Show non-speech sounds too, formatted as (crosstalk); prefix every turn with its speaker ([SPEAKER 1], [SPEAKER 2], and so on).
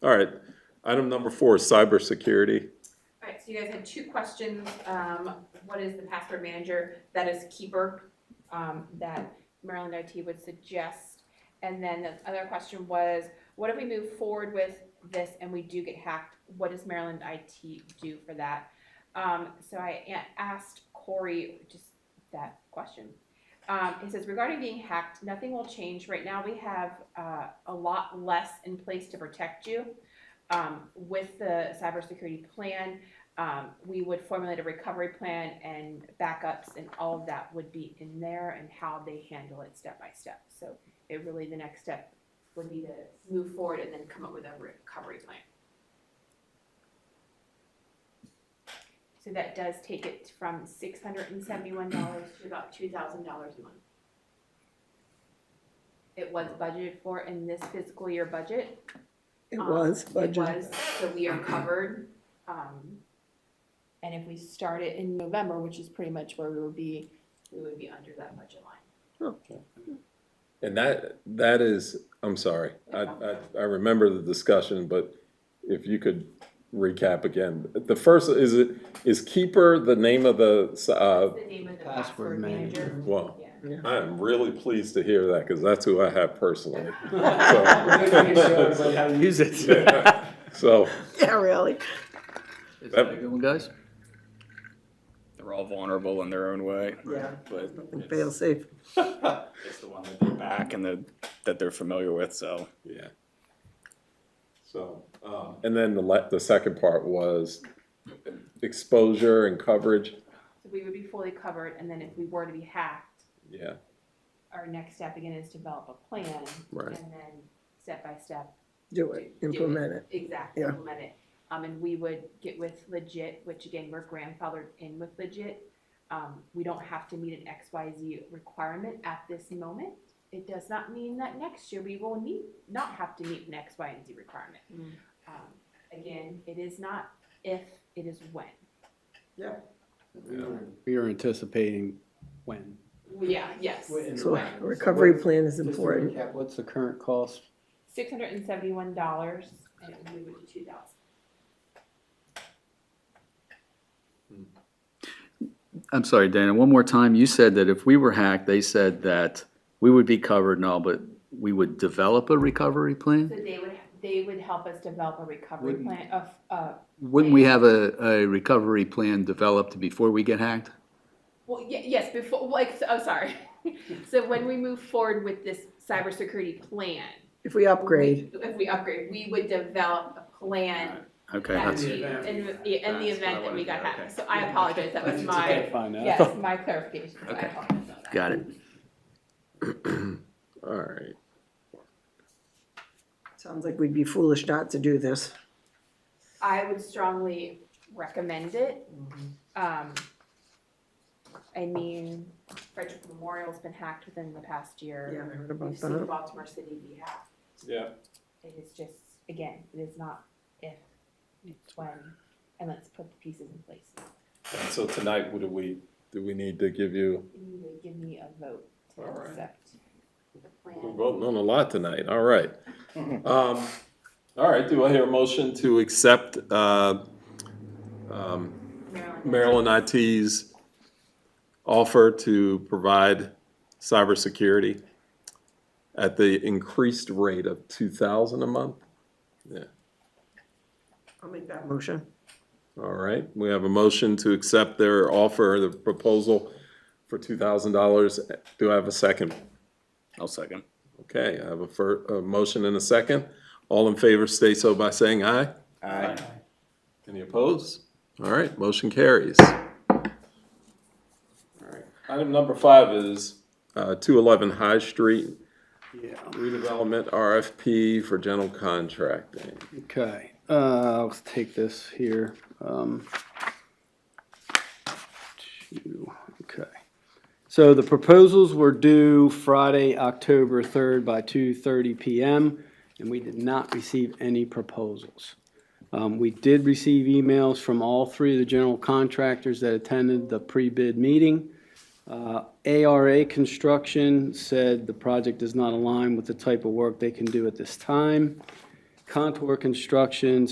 [SPEAKER 1] All right, item number four is cybersecurity.
[SPEAKER 2] All right, so you guys had two questions. Um, What is the password manager? That is Keeper, um, that Maryland IT would suggest. And then the other question was, what if we move forward with this and we do get hacked? What does Maryland IT do for that? Um, So I a- asked Corey just that question. Um, It says regarding being hacked, nothing will change. Right now, we have uh, a lot less in place to protect you um, with the cybersecurity plan, um, we would formulate a recovery plan and backups and all of that would be in there and how they handle it step by step. So it really, the next step would be to move forward and then come up with a recovery plan. So that does take it from six hundred and seventy-one dollars to about two thousand dollars a month. It was budgeted for in this fiscal year budget,
[SPEAKER 3] It
[SPEAKER 2] um,
[SPEAKER 3] was
[SPEAKER 2] It
[SPEAKER 3] budgeted.
[SPEAKER 2] was, so we are covered. um, And if we start it in November, which is pretty much where we would be, we would be under that budget line.
[SPEAKER 1] And that, that is, I'm sorry, I, I, I remember the discussion, but if you could recap again. The first, is it, is Keeper the name of the, uh,
[SPEAKER 2] The name of the
[SPEAKER 4] Password
[SPEAKER 2] password
[SPEAKER 4] manager.
[SPEAKER 2] manager.
[SPEAKER 1] well,
[SPEAKER 2] Yeah.
[SPEAKER 1] I am really pleased to hear that, because that's who I have personally.
[SPEAKER 4] Use it.
[SPEAKER 1] Yeah. (laughs) So,
[SPEAKER 3] (laughs) Yeah, really.
[SPEAKER 5] Is that a good one, guys? They're all vulnerable in their own way,
[SPEAKER 3] Yeah.
[SPEAKER 5] but
[SPEAKER 3] Fail
[SPEAKER 5] it's,
[SPEAKER 3] safe.
[SPEAKER 5] it's the one that they're back and the, that they're familiar with, so.
[SPEAKER 1] yeah. So, um, and then the le, the second part was exposure and coverage,
[SPEAKER 2] So we would be fully covered, and then if we were to be hacked,
[SPEAKER 1] yeah.
[SPEAKER 2] our next step again is develop a plan.
[SPEAKER 1] Right.
[SPEAKER 2] And then step by step,
[SPEAKER 3] Do it, implement it.
[SPEAKER 2] exactly,
[SPEAKER 3] Yeah.
[SPEAKER 2] implement it. Um, and we would get with legit, which again, we're grandfathered in with legit. Um, we don't have to meet an XYZ requirement at this moment. It does not mean that next year we will need, not have to meet an X, Y, and Z requirement.
[SPEAKER 3] Mm.
[SPEAKER 2] Um, Again, it is not if, it is when.
[SPEAKER 4] We are anticipating when.
[SPEAKER 2] Yeah, yes.
[SPEAKER 3] So a recovery plan is important.
[SPEAKER 4] What's the current cost?
[SPEAKER 2] Six hundred and seventy-one dollars and it would move to two thousand.
[SPEAKER 5] I'm sorry, Dana, one more time. You said that if we were hacked, they said that we would be covered and all, but we would develop a recovery
[SPEAKER 2] So
[SPEAKER 5] plan?
[SPEAKER 2] they would, they would help us develop a recovery
[SPEAKER 4] Wouldn't-
[SPEAKER 2] plan of, uh,
[SPEAKER 5] Wouldn't we have a, a recovery plan developed before we get hacked?
[SPEAKER 2] Well, ye- yes, before, like, so- oh, sorry. (laughs) So when we move forward with this cybersecurity plan.
[SPEAKER 3] If we upgrade,
[SPEAKER 2] we- If we upgrade, we would develop a plan
[SPEAKER 5] Okay,
[SPEAKER 2] that
[SPEAKER 5] that's,
[SPEAKER 2] we, in, the- yeah, in the
[SPEAKER 5] That's what I
[SPEAKER 2] event that we
[SPEAKER 5] wanted to
[SPEAKER 2] got
[SPEAKER 5] hear,
[SPEAKER 2] hacked.
[SPEAKER 5] okay.
[SPEAKER 2] So I apologize, that was my,
[SPEAKER 4] Find
[SPEAKER 5] (laughs)
[SPEAKER 2] yes, my clarification. so I
[SPEAKER 5] Okay.
[SPEAKER 2] apologize on that.
[SPEAKER 5] got it.
[SPEAKER 1] All right,
[SPEAKER 3] sounds like we'd be foolish not to do this.
[SPEAKER 2] I would strongly recommend it.
[SPEAKER 5] Mm-hmm.
[SPEAKER 2] Um, I mean, Frederick Memorial's been hacked within the past year.
[SPEAKER 3] Yeah, I heard about
[SPEAKER 2] We've seen
[SPEAKER 3] that.
[SPEAKER 2] Baltimore City be hacked.
[SPEAKER 1] yeah.
[SPEAKER 2] It is just, again, it is not if, it's when, and let's put the pieces in place.
[SPEAKER 1] And So tonight, what do we, do we need to give you?
[SPEAKER 2] You need to give me a vote to
[SPEAKER 1] All right.
[SPEAKER 2] accept the
[SPEAKER 1] We're
[SPEAKER 2] plan.
[SPEAKER 1] voting on a lot tonight, all right. Um, all right, do I hear a motion to accept, uh, um, Maryland IT's offer to provide cybersecurity at the increased rate of two thousand a month?
[SPEAKER 3] I'll make that motion.
[SPEAKER 1] All right, we have a motion to accept their offer, the proposal for two thousand dollars. Do I have a second?
[SPEAKER 5] I'll second.
[SPEAKER 1] Okay, I have a fir, a motion and a second. All in favor state so by saying aye.
[SPEAKER 5] Aye.
[SPEAKER 1] Any opposed? All right, motion carries. Item number five is, uh, two eleven High Street
[SPEAKER 4] Yeah.
[SPEAKER 1] redevelopment RFP for general contracting.
[SPEAKER 4] Okay, uh, let's take this here. Um, two, okay. So the proposals were due Friday, October third by two thirty PM, and we did not receive any proposals. Um, we did receive emails from all three of the general contractors that attended the pre-bid meeting. Uh, ARA Construction said the project does not align with the type of work they can do at this time. Contour Construction